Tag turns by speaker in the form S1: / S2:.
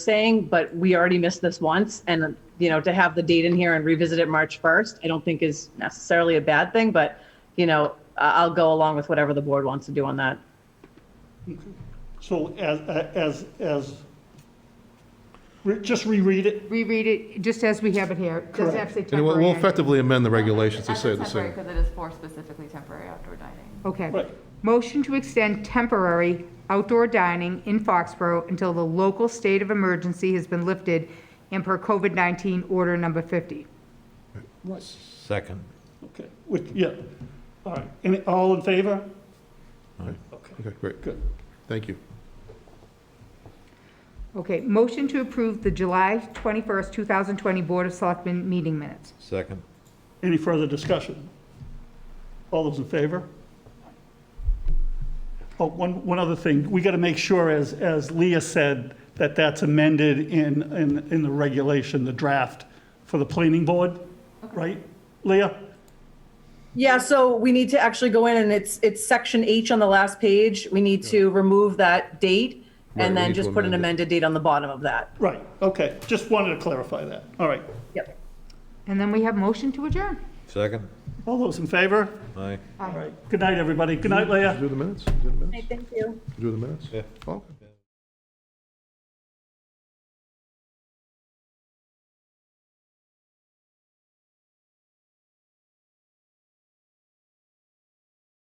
S1: saying, but we already missed this once. And, you know, to have the date in here and revisit it March 1st, I don't think is necessarily a bad thing, but, you know, I- I'll go along with whatever the board wants to do on that.
S2: So as, as, as, re- just reread it?
S3: reread it just as we have it here. It Doesn't have to say
S4: And we'll- we'll
S3: temporary.
S4: effectively amend the regulations to
S5: As
S4: say
S5: a
S4: the
S5: temporary,
S4: same.
S5: Because it is for specifically temporary outdoor dining.
S3: Okay.
S2: Right.
S3: Motion to extend temporary outdoor dining in Foxborough until the local state of emergency has been lifted and per COVID-19 order number 50.
S6: Second.
S2: Okay, which, yeah, all right. Any, all in favor?
S4: Aye.
S2: Okay,
S4: Okay, great,
S2: good.
S4: thank you.
S3: Okay, motion to approve the July 21st, 2020 Board of Selectmen meeting minutes.
S6: Second.
S2: Any further discussion? All those in favor? Oh, one, one other thing, we got to make sure, as, as Leah said, that that's amended in, in, in the regulation, the draft for the planning board, right? Leah?
S1: Yeah, so we need to actually go in and it's, it's section H on the last page. We need to remove that date
S4: Right, we
S1: and then
S4: need to
S1: just put an
S4: amend
S1: amended date on the bottom of that.
S2: Right, okay, just wanted to clarify that, all right.
S1: Yep.
S3: And then we have motion to adjourn.
S6: Second.
S2: All those in favor?
S6: Aye.
S2: All right, good night, everybody, good night, Leah.
S4: Do the minutes, do the minutes,
S1: Thank you.
S4: do the minutes?
S6: Yeah.
S4: Okay.